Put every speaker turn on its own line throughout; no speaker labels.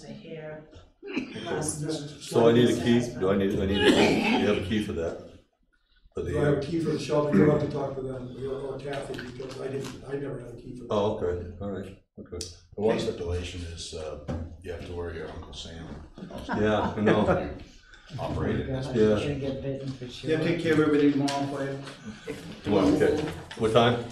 their master.
So I need a key, do I need, I need a key, do you have a key for that? For
Do I have a
the,
key for the shelter? You'll have to talk to them, you'll or Kathy, because I didn't, I never had a key for that.
oh, okay, all right, okay,
The one stipulation is, uh, you have to wear your Uncle Sam
yeah, I know,
operated. as-
Yeah.
You're gonna get bitten for sure.
Yeah, take care of everything tomorrow for you.
What, okay, what time?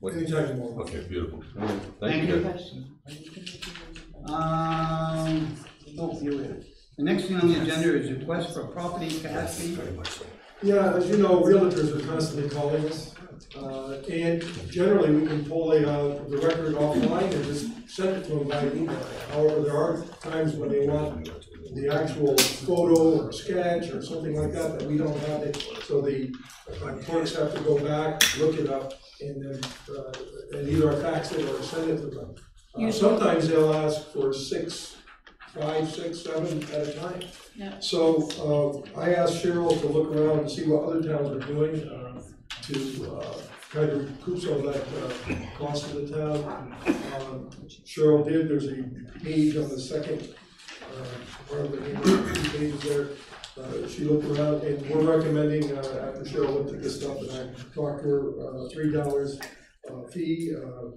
What,
Anytime tomorrow.
okay, beautiful, all right,
Thank
thank you.
you.
guys.
Question. Are you gonna do-
Um, oh, here we are. The next thing on the agenda is request for property capacity.
Very much so.
Yeah, as you know, realtors are constantly calling us, uh, and generally, we can pull the, uh, the record offline and just send it to them by email. However, there are times when they want the actual photo or sketch or something like that, that we don't have it, so the uh, clerks have to go back, look it up, and then, uh, and either fax it or send it to them. Uh, Sometimes they'll ask for six, five, six, seven at a time.
Yeah.
So, uh, I asked Cheryl to look around and see what other towns are doing, uh, to, uh, kind of recoup some of that, uh, cost of the town. Um, Cheryl did, there's a page on the second, uh, part of the handbook, two pages there. Uh, she looked around, and we're recommending, uh, after Cheryl looked at this stuff, and I talked to her, uh, three dollars, uh, fee, uh,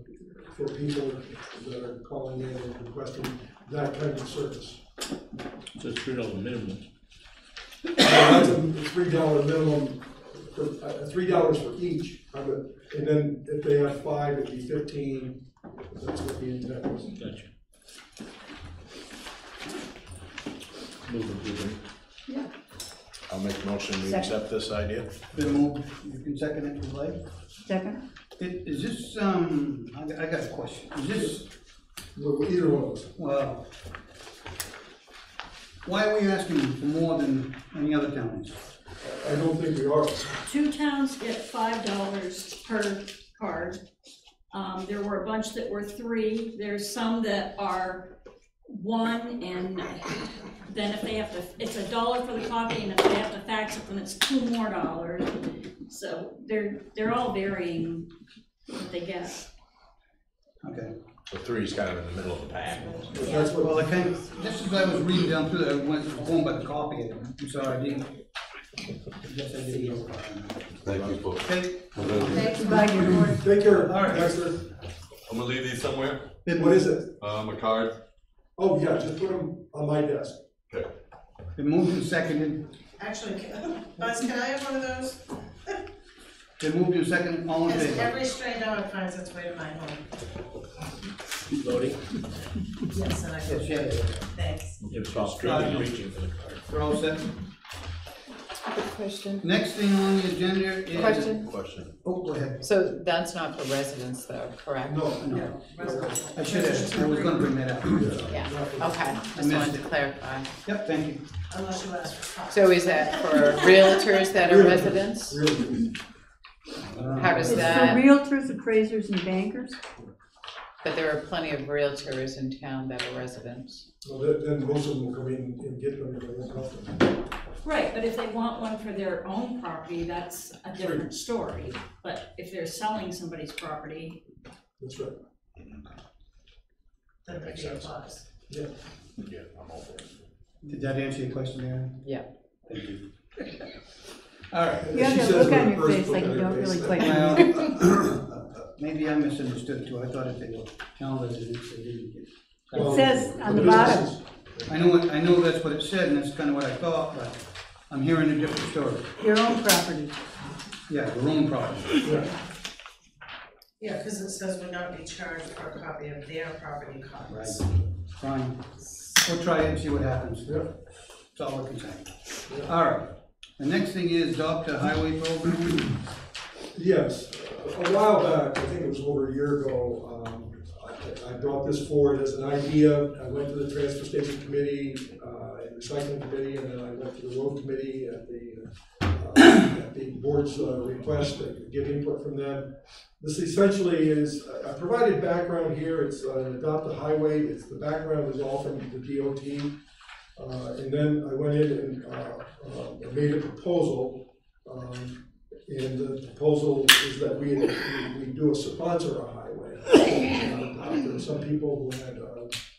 for people that are calling in and requesting that kind of service.
Just three dollar minimum.
Now, That's a three dollar minimum, for- uh, three dollars for each, of it. and then if they have five, it'd be fifteen, that's what the intent was.
Gotcha. Move approval.
I'll make a motion, we accept this idea.
Been moved, you can second it if you like.
Second?
Is- Is this, um, I got- I got a question. Is this,
Look, Either one of us.
well, why are we asking for more than any other towns?
I don't think we are.
Two towns get five dollars per card. Um, there were a bunch that were three, there's some that are one, and then if they have to, it's a dollar for the copy, and if they have to fax it, then it's two more dollars. So they're, they're all varying what they get.
Okay.
The three's kind of in the middle of the pack.
But that's
Well,
what,
I kind of, just as I was reading down through that, I went home by the copy, it. I'm sorry, I didn't. I guess I didn't know.
Thank you.
Okay,
Thank you, bye, good work.
take care,
All right.
Dexter.
I'm gonna leave these somewhere,
been
What
moved,
is it?
um, a card,
Oh, yeah, just put them on my desk.
okay,
been moved and seconded,
Actually, can- Buzz, can I have one of those?
been moved and seconded, all in
Because
favor?
every stray dog finds its way to my home.
Voting?
Yes, and I
Yes,
can,
yes, yes.
thanks.
It was all straight, reaching for the card.
we're all set.
Question,
Next thing on the agenda is.
question,
Question.
Oh, go ahead.
so that's not for residents though, correct?
No, no.
I should have, I was gonna bring that up.
Yeah,
Nothing.
okay, just wanted to clarify.
Yep, thank you.
Unless you ask for copies.
So is that for realtors that are residents?
Really,
How
It's
does
for
that,
realtors, appraisers, and bankers?
but there are plenty of realtors in town that are residents.
well, then, then most of them will come in and get them, and they won't help them.
Right, but if they want one for their own property, that's a different story, but if they're selling somebody's property,
that's right.
That would be a plus.
Yeah, I'm all for it.
Did that answer your question, Aaron?
Yeah.
Thank you. All right.
You have
She
that
says
look on
with
your
her
face
first
like
look
you
at her
don't really
face.
quite know.
Well, uh, Maybe I misunderstood too, I thought if they were town residents, they didn't get.
Well,
says on the
businesses-
I know, what- I know that's what it said, and that's kind of what I thought, but I'm hearing a different story.
Your own property.
Yeah, the own property.
Yeah.
Yeah, because it says would not be charged for a copy of their property
Right,
copies.
fine. We'll try it and see what happens.
Yeah.
That's all we can say. All right. The next thing is adopt a highway program.
Yes, a while back, I think it was over a year ago, um, I, I brought this forward as an idea. I went to the transfer station committee, uh, and recycling committee, and then I went to the road committee at the, uh, at the board's uh, request, to get input from them. This essentially is, I I provided background here, it's uh, an adopt a highway, it's, the background is all from the DOT. Uh, and then I went in and, uh, uh, made a proposal, um, and the proposal is that we, we do a sponsor a highway. Uh, There are some people who had, uh,